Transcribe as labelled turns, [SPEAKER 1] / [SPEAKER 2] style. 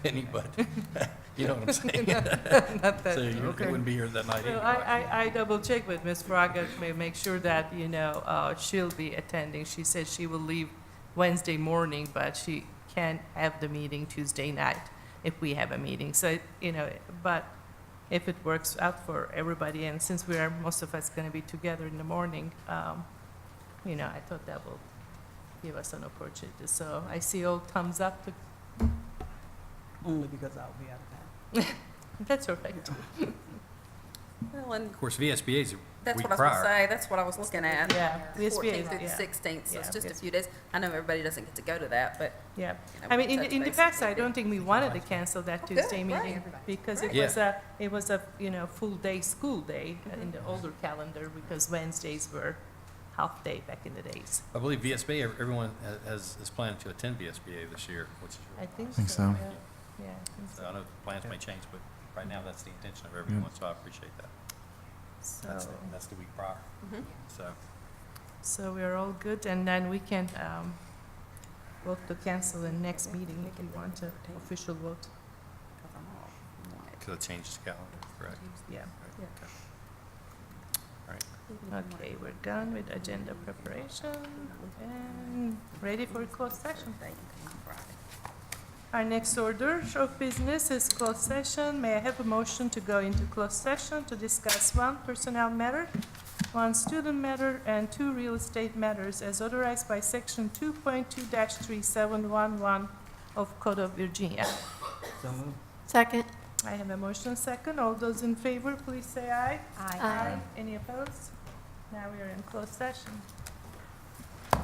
[SPEAKER 1] penny, but, you know what I'm saying?
[SPEAKER 2] Not that-
[SPEAKER 1] So you
[SPEAKER 2] okay.
[SPEAKER 1] wouldn't be here that night
[SPEAKER 2] No,
[SPEAKER 1] anyway.
[SPEAKER 2] I, I, I double check with Ms. Fraga to ma- make sure that, you know, uh, she'll be attending. She said she will leave Wednesday morning, but she can have the meeting Tuesday night if we have a meeting. So, you know, but if it works out for everybody, and since we are, most of us gonna be together in the morning, um, you know, I thought that will give us an opportunity. So I see all thumbs up to,
[SPEAKER 3] Only because I'll be out of town.
[SPEAKER 2] that's all right.
[SPEAKER 4] Well, and
[SPEAKER 5] Of course, VSBA is a
[SPEAKER 4] that's
[SPEAKER 5] week
[SPEAKER 4] what I was gonna
[SPEAKER 5] prior.
[SPEAKER 4] say, that's what I was looking at.
[SPEAKER 2] Yeah. Yes, we is,
[SPEAKER 4] Fourteenth through the
[SPEAKER 2] yeah.
[SPEAKER 4] sixteenth, so it's
[SPEAKER 2] Yeah,
[SPEAKER 4] just a
[SPEAKER 2] yes.
[SPEAKER 4] few days. I know everybody doesn't get to go to that, but.
[SPEAKER 2] Yeah.
[SPEAKER 4] you know,
[SPEAKER 2] I
[SPEAKER 4] we
[SPEAKER 2] mean,
[SPEAKER 4] can
[SPEAKER 2] in,
[SPEAKER 4] touch
[SPEAKER 2] in the
[SPEAKER 4] base
[SPEAKER 2] past,
[SPEAKER 4] if
[SPEAKER 2] I
[SPEAKER 4] we-
[SPEAKER 2] don't think we wanted to cancel that
[SPEAKER 4] good,
[SPEAKER 2] Tuesday
[SPEAKER 4] right.
[SPEAKER 2] meeting because it
[SPEAKER 5] Yeah.
[SPEAKER 2] was a, it was a, you know, full day school day in the older calendar because Wednesdays were half day back in the days.
[SPEAKER 5] I believe VSBA, ev- everyone ha- has, is planning to attend VSBA this year, which is,
[SPEAKER 2] I think so.
[SPEAKER 6] Think so.
[SPEAKER 2] yeah. Yeah, I think
[SPEAKER 5] so I know plans may change, but right now, that's the intention of everyone, so I appreciate that. That's,
[SPEAKER 2] so.
[SPEAKER 5] the- that's the week prior,
[SPEAKER 4] Mhm.
[SPEAKER 5] so.
[SPEAKER 2] So we're all good and then we can, um, vote to cancel the next meeting if you want to, official vote,
[SPEAKER 5] Because it changes the calendar, correct?
[SPEAKER 2] yeah.
[SPEAKER 5] Right, okay.
[SPEAKER 2] Okay, we're done with agenda preparation
[SPEAKER 4] Mm-hmm.
[SPEAKER 2] and ready for closed session. Our next order of business is closed session. May I have a motion to go into closed session to discuss one personnel matter, one student matter, and two real estate matters as authorized by section two point two three seven one one of Code of Virginia.
[SPEAKER 3] So moved.
[SPEAKER 7] Second.
[SPEAKER 2] I have a motion second. All those in favor, please say aye.
[SPEAKER 7] Aye.
[SPEAKER 2] Any opposed? Now we are in closed session.